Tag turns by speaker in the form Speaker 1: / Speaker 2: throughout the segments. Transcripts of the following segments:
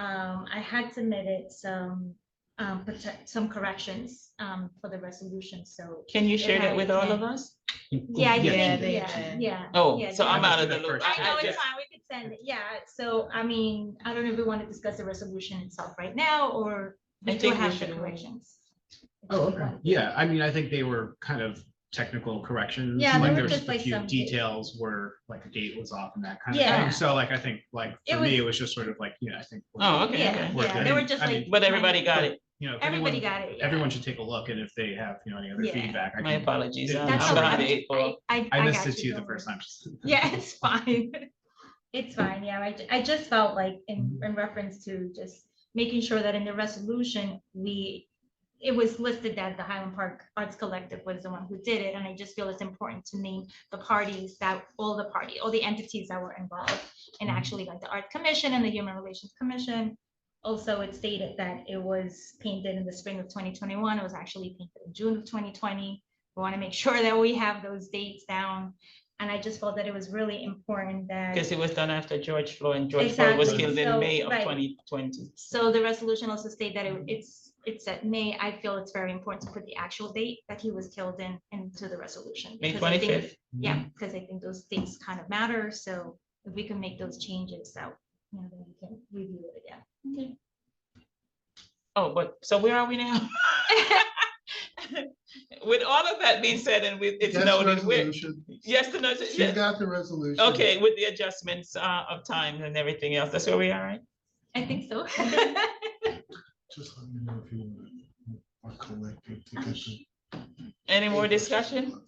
Speaker 1: Um, I had submitted some, um, prote- some corrections, um, for the resolution, so.
Speaker 2: Can you share that with all of us?
Speaker 1: Yeah,
Speaker 3: Oh,
Speaker 1: I
Speaker 4: Yeah,
Speaker 1: think,
Speaker 4: they
Speaker 1: yeah,
Speaker 4: did.
Speaker 1: yeah.
Speaker 2: Oh,
Speaker 1: yeah,
Speaker 2: so
Speaker 1: they
Speaker 2: I'm
Speaker 1: did.
Speaker 2: out of the loop.
Speaker 1: I know,
Speaker 2: yeah.
Speaker 1: it's fine, we could send it, yeah, so, I mean, I don't know if we want to discuss the resolution itself right now, or we
Speaker 2: I
Speaker 1: do
Speaker 2: think we
Speaker 1: have the
Speaker 2: should.
Speaker 1: corrections.
Speaker 4: Oh, okay.
Speaker 3: Yeah, I mean, I think they were kind of technical corrections.
Speaker 1: Yeah, they
Speaker 3: Like
Speaker 1: were
Speaker 3: there was
Speaker 1: just
Speaker 3: just a
Speaker 1: like
Speaker 3: few
Speaker 1: some-
Speaker 3: details where like a date was off and that kind of
Speaker 1: Yeah.
Speaker 3: thing. So like, I think like
Speaker 1: It
Speaker 3: for me, it was just sort of like, yeah, I think. we're-
Speaker 2: Oh, okay,
Speaker 1: Yeah,
Speaker 2: okay.
Speaker 3: We're
Speaker 1: yeah,
Speaker 3: good.
Speaker 1: they were just
Speaker 3: I mean,
Speaker 1: like.
Speaker 2: But everybody got it.
Speaker 3: You know, if
Speaker 1: Everybody
Speaker 3: anyone-
Speaker 1: got it, yeah.
Speaker 3: Everyone should take a look and if they have, you know, any other
Speaker 1: Yeah.
Speaker 3: feedback. I
Speaker 2: My
Speaker 3: can-
Speaker 2: apologies. I'm
Speaker 1: That's
Speaker 2: I'm
Speaker 1: all
Speaker 2: behind the
Speaker 1: right.
Speaker 2: eight
Speaker 1: I,
Speaker 2: ball.
Speaker 1: I.
Speaker 3: I missed
Speaker 1: got
Speaker 3: it too the
Speaker 1: don't worry.
Speaker 3: first time.
Speaker 1: Yeah, it's fine. It's fine, yeah, I, ju- I just felt like in, in reference to just making sure that in the resolution, we, it was listed that the Highland Park Arts Collective was the one who did it, and I just feel it's important to name the parties that, all the party, all the entities that were involved, and
Speaker 2: Mm-hmm.
Speaker 1: actually like the Art Commission and the Human Relations Commission. Also, it stated that it was painted in the spring of twenty twenty-one, it was actually painted in June of twenty twenty. We want to make sure that we have those dates down, and I just felt that it was really important that.
Speaker 2: Because it was done after George Floyd and George Floyd was
Speaker 1: Exactly.
Speaker 2: killed
Speaker 1: So,
Speaker 2: in May of
Speaker 1: right.
Speaker 2: twenty twenty.
Speaker 1: So the resolution also state that it- it's, it's at May, I feel it's very important to put the actual date that he was killed in, into the resolution.
Speaker 2: May
Speaker 1: because I think-
Speaker 2: twenty-fifth, Mm-hmm.
Speaker 1: Yeah, because I think those things kind of matter, so if we can make those changes, so, you know, then we can review it again.
Speaker 2: oh, but, so where are we now? With all of that being said and with, it's
Speaker 5: That's
Speaker 2: noted, we're,
Speaker 5: resolution.
Speaker 2: yes, the notice,
Speaker 5: She
Speaker 2: yes.
Speaker 5: got the resolution.
Speaker 2: Okay, with the adjustments uh, of time and everything else, that's where we are, right?
Speaker 1: I think so.
Speaker 5: Just let me know if you are collecting. to get the-
Speaker 2: Any more discussion?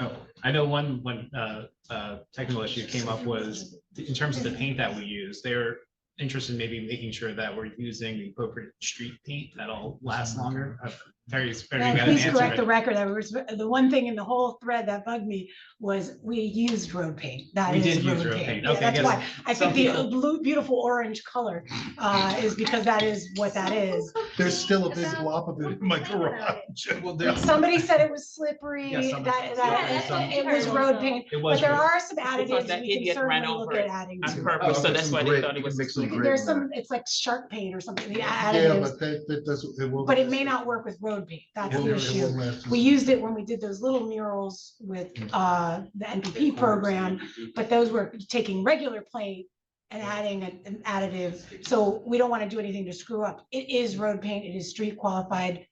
Speaker 3: Oh, I know one, one, uh, uh, technical issue came up was in terms of the paint that we use, they're interested in maybe making sure that we're using the appropriate street paint that'll last longer. Uh, Terry's better
Speaker 6: And
Speaker 3: got an
Speaker 6: Please
Speaker 3: answer.
Speaker 6: correct the
Speaker 3: right?
Speaker 6: record. I was, the one thing in the whole thread that bugged me was we used road paint. That
Speaker 3: We did
Speaker 6: is
Speaker 3: use
Speaker 6: road
Speaker 3: road
Speaker 6: paint.
Speaker 3: paint.
Speaker 6: Yeah,
Speaker 3: Okay,
Speaker 6: That's
Speaker 3: yes.
Speaker 6: why I
Speaker 3: Some
Speaker 6: think the
Speaker 3: people-
Speaker 6: blue, beautiful orange color uh, is because that is what that is.
Speaker 5: There's still a big wop of it in my garage.
Speaker 3: Well, there's-
Speaker 6: Somebody said it was slippery,
Speaker 3: Yeah,
Speaker 6: that,
Speaker 3: some-
Speaker 6: that,
Speaker 3: yeah,
Speaker 6: that-
Speaker 3: some-
Speaker 6: it was road paint.
Speaker 3: It
Speaker 6: But
Speaker 3: was.
Speaker 6: there
Speaker 3: road-
Speaker 6: are some additives
Speaker 2: that
Speaker 6: we can
Speaker 2: idiot ran
Speaker 6: certainly look
Speaker 2: over
Speaker 6: at
Speaker 2: it.
Speaker 6: adding.
Speaker 2: On
Speaker 6: to it.
Speaker 2: purpose, so
Speaker 5: okay,
Speaker 2: that's
Speaker 5: some
Speaker 2: why they
Speaker 5: grit,
Speaker 2: thought
Speaker 5: you
Speaker 2: it
Speaker 5: can
Speaker 2: was.
Speaker 5: mix some
Speaker 2: stupid.
Speaker 5: grit.
Speaker 6: There's some, it's like shark paint or something, the
Speaker 5: Yeah,
Speaker 6: additives,
Speaker 5: but that, that doesn't, it will.
Speaker 6: but it may not work with road paint. That's
Speaker 5: it
Speaker 6: the
Speaker 5: won't- it
Speaker 6: issue.
Speaker 5: won't last as
Speaker 6: We used it when we did those little murals with
Speaker 2: Mm.
Speaker 6: uh, the NPP program,
Speaker 2: Mm-hmm.
Speaker 6: but those were taking regular paint and adding an an additive. So we don't want to do anything to screw up. It is
Speaker 2: Mm.
Speaker 6: road paint, it is street qualified.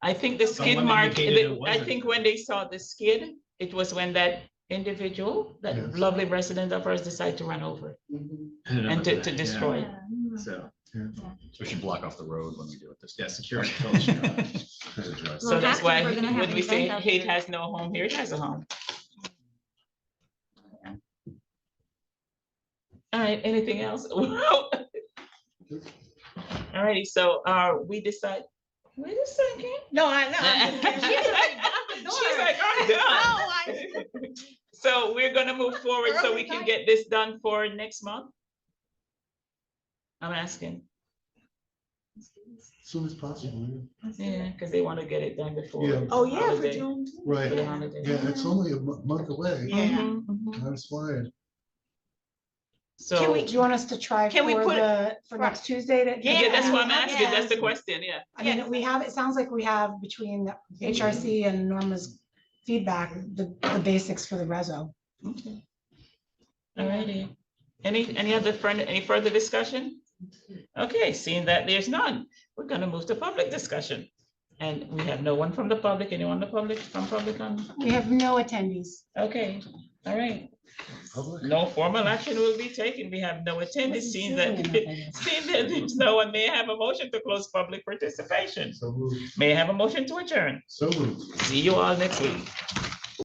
Speaker 2: I think the skid
Speaker 3: Someone
Speaker 2: mark,
Speaker 3: indicated
Speaker 2: the- I
Speaker 3: it wasn't.
Speaker 2: think when they saw the skid, it was when that individual, that
Speaker 5: Yes.
Speaker 2: lovely resident of ours decided to run over it
Speaker 3: I don't know
Speaker 2: and to,
Speaker 3: about
Speaker 2: to
Speaker 3: that, yeah.
Speaker 2: destroy it.
Speaker 1: Yeah. Mm.
Speaker 3: So,
Speaker 7: So we should block off the road when we do it this.
Speaker 3: yeah, security. culture.
Speaker 7: Yes.
Speaker 2: So
Speaker 1: Well,
Speaker 2: that's
Speaker 1: that's
Speaker 2: why,
Speaker 1: what we're gonna have
Speaker 2: when
Speaker 1: an
Speaker 2: we say
Speaker 1: event out
Speaker 2: hate
Speaker 1: there.
Speaker 2: has no home, here it has a home. All right, anything else? All righty, so, uh, we decide, wait a second.
Speaker 6: No, I know. "Oh,
Speaker 2: She's like, "Oh, I'm done. So we're gonna move forward so we can get this done for next month? I'm asking,
Speaker 5: Soon as possible, yeah.
Speaker 2: yeah, because they want to get it done before.
Speaker 5: Yeah.
Speaker 6: Oh, yeah, for
Speaker 2: holiday-
Speaker 6: June.
Speaker 2: for
Speaker 5: right.
Speaker 2: the holiday.
Speaker 5: Yeah, it's only a mo- month away.
Speaker 6: Yeah.
Speaker 2: Mhm, mhm.
Speaker 5: Time's flying.
Speaker 6: Can we,
Speaker 2: So,
Speaker 6: do you want us to try for
Speaker 2: Can we put it-
Speaker 6: the, for
Speaker 2: Right.
Speaker 6: next Tuesday to?
Speaker 2: yeah, that's what I'm
Speaker 1: Yeah.
Speaker 2: asking, that's the question, yeah.
Speaker 6: I mean, we have, it sounds like we have between the
Speaker 2: Mm-hmm.
Speaker 6: HRC and Norma's feedback, the, the basics for the reso.
Speaker 2: Alrighty, any, any other friend, any further discussion? Okay, seeing that there's none, we're gonna move to public discussion. And we have no one from the public, anyone in the public, from public on,
Speaker 6: We have no attendees.
Speaker 2: okay, all right.
Speaker 5: Public.
Speaker 2: No formal action will be taken, we have no attendance, seeing that, seeing that there's no one, may I have a motion to close public participation.
Speaker 5: So moved.
Speaker 2: May I have a motion to adjourn,
Speaker 5: So moved.
Speaker 2: see you all next week.